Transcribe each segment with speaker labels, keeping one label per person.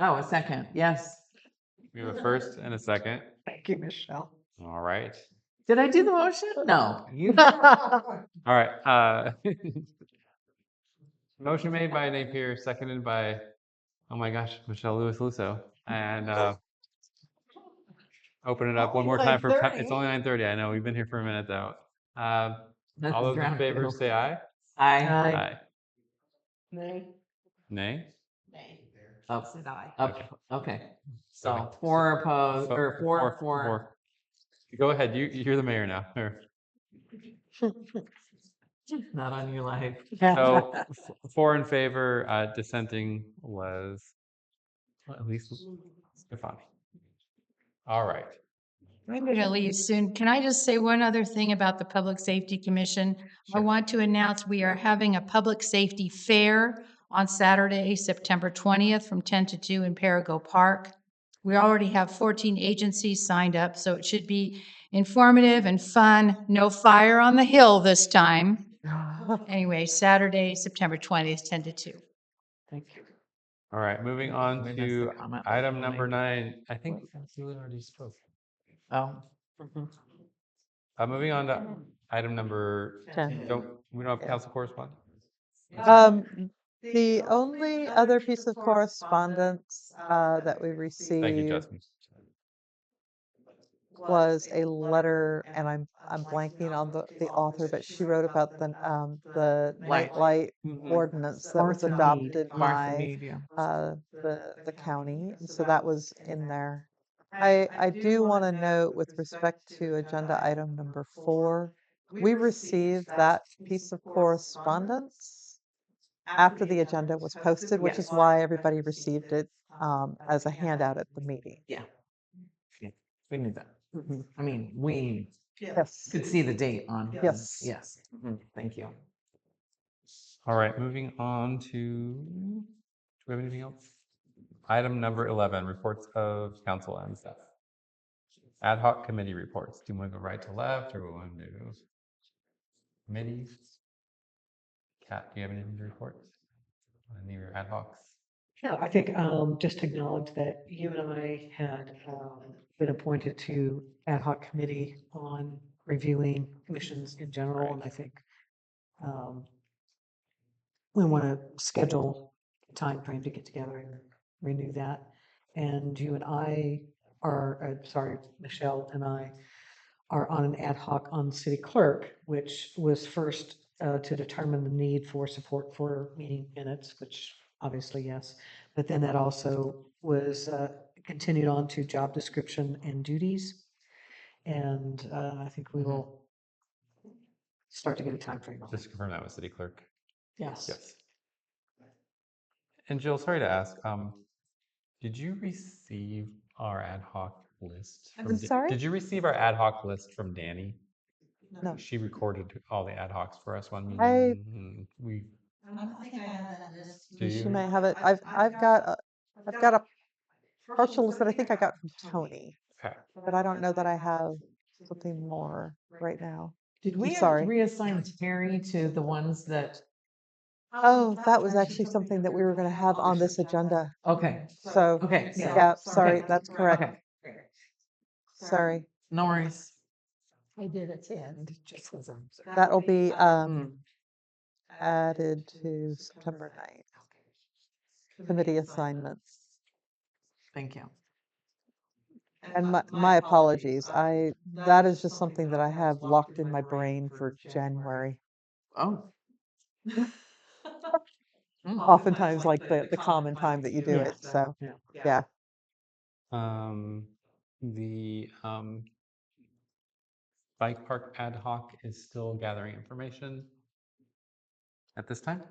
Speaker 1: Oh, a second, yes.
Speaker 2: We have a first and a second.
Speaker 3: Thank you, Michelle.
Speaker 2: All right.
Speaker 1: Did I do the motion? No.
Speaker 2: You- All right. Uh, motion made by Napier, seconded by, oh my gosh, Michelle Lewis Lusso. And uh, open it up one more time for, pa- it's only 9:30. I know, we've been here for a minute though. Uh,
Speaker 1: That's
Speaker 2: All those in favor
Speaker 1: grammatical.
Speaker 2: say aye.
Speaker 1: Aye.
Speaker 3: Aye.
Speaker 2: Aye. Nay?
Speaker 1: Up, Oh, up, okay. So
Speaker 2: Okay.
Speaker 1: four opposed,
Speaker 2: Fo-
Speaker 1: Uh, or four, four.
Speaker 2: four. Go ahead. You, you're the mayor now. Or-
Speaker 1: Not on your life.
Speaker 2: So f- four in favor, uh, dissenting was well, at least Stefani. All right.
Speaker 4: I'm going to leave soon. Can I just say one other thing about the Public Safety Commission? I
Speaker 2: Sure.
Speaker 4: want to announce we are having a public safety fair on Saturday, September 20th, from 10 to 2 in Perigo Park. We already have 14 agencies signed up, so it should be informative and fun. No fire on the hill this time. Anyway, Saturday, September 20th, 10 to 2.
Speaker 3: Thank you.
Speaker 2: All right. Moving
Speaker 1: We
Speaker 2: on
Speaker 1: missed the
Speaker 2: to
Speaker 1: comment was
Speaker 2: item
Speaker 1: made.
Speaker 2: number nine. I think,
Speaker 1: Oh,
Speaker 2: uh, moving on to item number,
Speaker 5: Ten.
Speaker 2: don't, we don't have council correspondence?
Speaker 5: Um, the only other piece of correspondence, uh, that we
Speaker 2: Thank you,
Speaker 5: received
Speaker 2: Justin.
Speaker 5: was a letter, and I'm, I'm blanking on the, the author, but she wrote about the, um, the
Speaker 1: Light.
Speaker 5: night light ordinance that was
Speaker 3: Martha Mead.
Speaker 5: adopted
Speaker 1: Martha
Speaker 5: by,
Speaker 1: Mead, yeah.
Speaker 5: uh, the, the county, and so that was in there. I, I do want to note with respect to agenda item number four, we received that piece of correspondence after the agenda was posted, which is why everybody received it um, as a handout at the meeting.
Speaker 1: We knew that. I mean, we
Speaker 5: Yes.
Speaker 1: could see the date on. the-
Speaker 5: Yes.
Speaker 1: Yes. Mhm. Thank you.
Speaker 2: All right, moving on to, do we have anything else? Item number 11, reports of council and staff. Ad hoc committee reports. Do you want to go right to left or we want to do committees? Kat, do you have anything to report? Any of your ad hocs?
Speaker 3: Yeah, I think um, just acknowledge that you and I had um, been appointed to ad hoc committee on reviewing commissions in general, and I think um, we want to schedule a time frame to get together and renew that. And you and I are, uh, sorry, Michelle and I are on an ad hoc on city clerk, which was first uh, to determine the need for support for meeting minutes, which obviously, yes. But then that also was uh, continued on to job description and duties. And uh, I think we will start to get a timeframe on
Speaker 2: Mm-hmm. Just to confirm that with city clerk.
Speaker 3: Yes.
Speaker 2: Yes. And Jill, sorry to ask, um, did you receive our ad hoc list?
Speaker 5: I'm
Speaker 2: from Da-
Speaker 5: sorry?
Speaker 2: Did you receive our ad hoc list from Danny?
Speaker 5: No.
Speaker 2: She recorded all the ad hocs for us one
Speaker 5: I-
Speaker 2: meeting. and We, do
Speaker 5: She
Speaker 2: you?
Speaker 5: might have it. I've, I've got, a have got a partial list that I think I got from Tony,
Speaker 2: Okay.
Speaker 5: but I don't know that I have something more right now.
Speaker 1: Did
Speaker 5: we
Speaker 1: we
Speaker 5: ever sorry.
Speaker 1: reassign Terry to the ones that,
Speaker 5: Oh, that was actually something that we were going to have on this agenda.
Speaker 1: okay,
Speaker 5: So,
Speaker 1: okay.
Speaker 3: Yeah.
Speaker 5: yeah, sorry,
Speaker 1: Okay.
Speaker 5: that's correct.
Speaker 1: Okay,
Speaker 5: Sorry.
Speaker 1: no worries.
Speaker 3: I did at the end, just as I'm.
Speaker 5: That'll be, um,
Speaker 1: Mm.
Speaker 5: added to September 9th. Committee assignments.
Speaker 1: Thank you.
Speaker 5: And my, my apologies, I, that is just something that I have locked in my brain for January.
Speaker 1: Oh. Mm.
Speaker 5: Oftentimes like the, the common time that you do it, so.
Speaker 2: Um, the, um, bike park ad hoc is still gathering information at this time?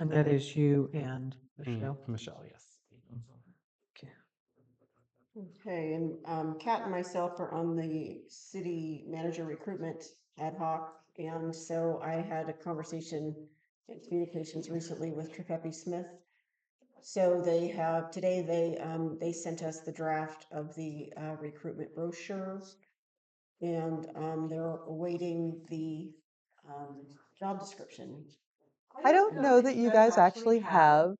Speaker 3: And that is you and
Speaker 2: Mm,
Speaker 3: Michelle. Mm-hmm.
Speaker 2: Michelle, yes.
Speaker 6: Okay, and um, Kat and myself are on the city manager recruitment ad hoc. And so I had a conversation in communications recently with Trepepe Smith. So they have, today they, um, they sent us the draft of the uh, recruitment brochure. And um, they're awaiting the um, job description.
Speaker 5: I don't know that you guys actually have